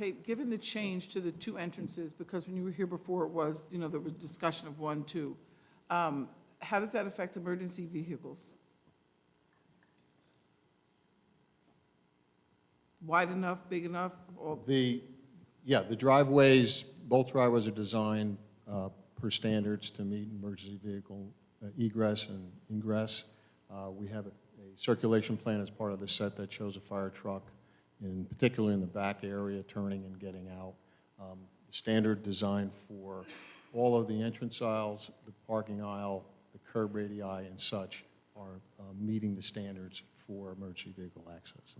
anticipate, given the change to the two entrances, because when you were here before, it was, you know, there was discussion of one, two, um, how does that affect emergency vehicles? Wide enough, big enough, or The, yeah, the driveways, both driveways are designed uh, per standards to meet emergency vehicle uh, egress and ingress. Uh, We have a a circulation plan as part of the set that shows a fire truck, in particular in the back area, turning and getting out. Um, Standard design for all of the entrance aisles, the parking aisle, the curb radii and such are uh, meeting the standards for emergency vehicle access.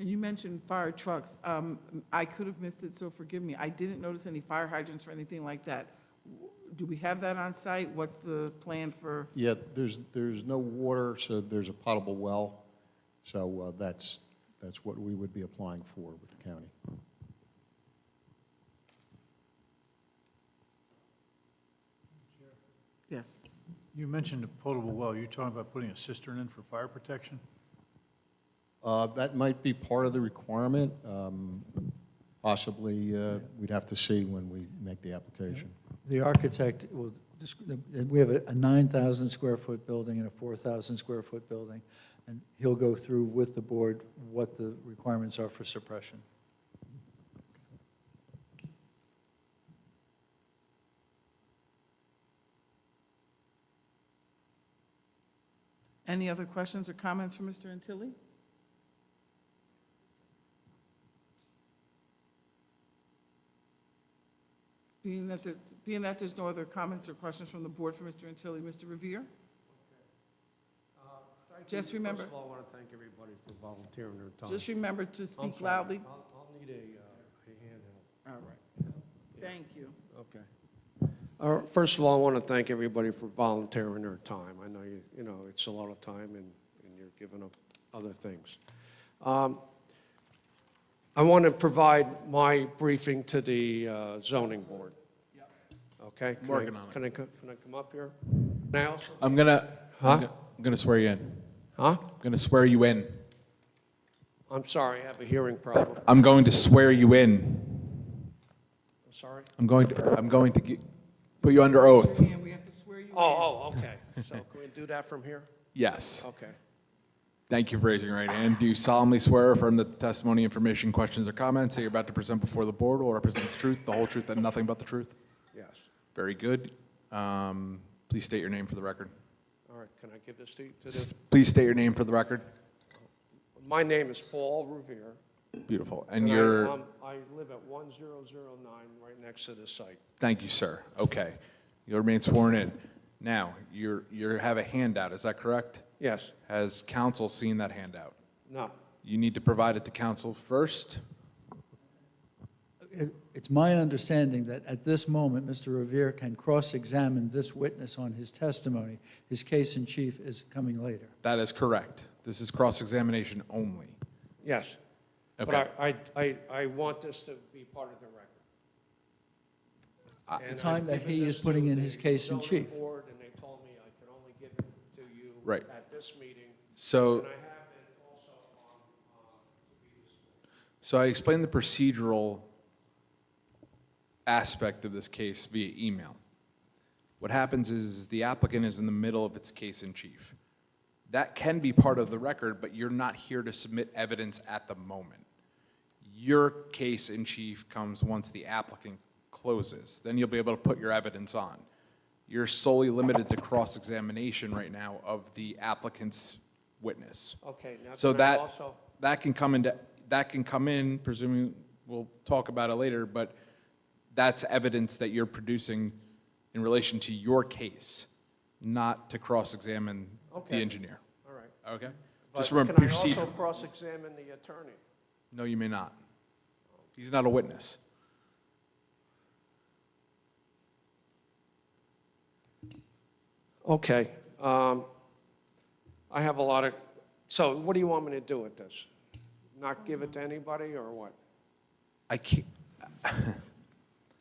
And you mentioned fire trucks. Um, I could have missed it, so forgive me. I didn't notice any fire hydrants or anything like that. Do we have that on site? What's the plan for, Yeah, there's, there's no water, so there's a potable well, so uh, that's, that's what we would be applying for with the county. yes? You mentioned a potable well. You're talking about putting a cistern in for fire protection? Uh, That might be part of the requirement, um, possibly, uh, we'd have to see when we make the application. The architect will, desc- the- we have a a 9,000 square foot building and a 4,000 square foot building, and he'll go through with the board what the requirements are for suppression. Any other questions or comments for Mr. Antilli? Being that, the- being that there's no other comments or questions from the board for Mr. Antilli, Mr. Revere? Thank Just you. remember- First of all, I want to thank everybody for volunteering their time. Just remember to I'm speak sorry. loudly. I'll I'll need a uh, a handheld. All right. Thank you. Okay. All right, Uh, First of all, I want to thank everybody for volunteering their time. I know you, you know, it's a lot of time and and you're giving up other things. Um, I want to provide my briefing to the uh, zoning board. Okay? Can I- Working on it. Can I, co- can I come up here now? I'm gonna, I'm Huh? go- I'm gonna swear you in. Huh? I'm gonna swear you in. I'm sorry, I have a hearing problem. I'm going to swear you in. I'm sorry. I'm going to, I'm going to gi- put you under oath. And we have to swear you in. Oh, oh, okay. So can we do that from here? Yes. Okay. Thank you for raising your right hand. Do you solemnly swear or affirm that the testimony, information, questions, or comments that you're about to present before the board will represent the truth, the whole truth, and nothing but the truth? Yes. Very good. Um, Please state your name for the record. All right, can I give this to you? to S- the- Please state your name for the record. My name is Paul Revere. Beautiful. And I, you're, um, I live at 1009, right next to this site. thank you, sir. Okay. You'll remain sworn in. Now, you're, you have a handout, is that correct? Yes, Has council seen that handout? no, You need to provide it to council first. It- It's my understanding that at this moment, Mr. Revere can cross-examine this witness on his testimony. His case in chief is coming later. That is correct. This is cross-examination only. yes. Okay. But I, I, I I want this to be part of the record. I- And I've Time that given he this is putting to in his the case in zoning chief. board, and they told me I could only give it to you Right. at this meeting. So, And I have it also on, uh, previous so I explained the procedural aspect of this case via email. What happens is the applicant is in the middle of its case in chief. That can be part of the record, but you're not here to submit evidence at the moment. Your case in chief comes once the applicant closes, then you'll be able to put your evidence on. You're solely limited to cross-examination right now of the applicant's witness. uh, Okay, now So can I that, also- that can come into, that can come in, presuming, we'll talk about it later, but that's evidence that you're producing in relation to your case, not to cross-examine the Okay. engineer, All right. okay? But Just remember, Can I also procedural. cross-examine the attorney? No, you may not. He's not a witness. Okay. um, I have a lot of, so what do you want me to do with this? Not give it to anybody or what? I can't, I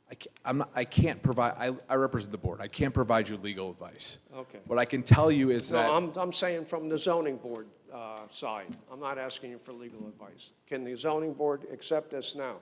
can't, I'm not, I can't provide, I, I represent the board. I can't provide you legal advice. Okay. What I can tell you is No, that. I'm, I'm saying from the zoning board uh, side. I'm not asking you for legal advice. Can the zoning board accept this now?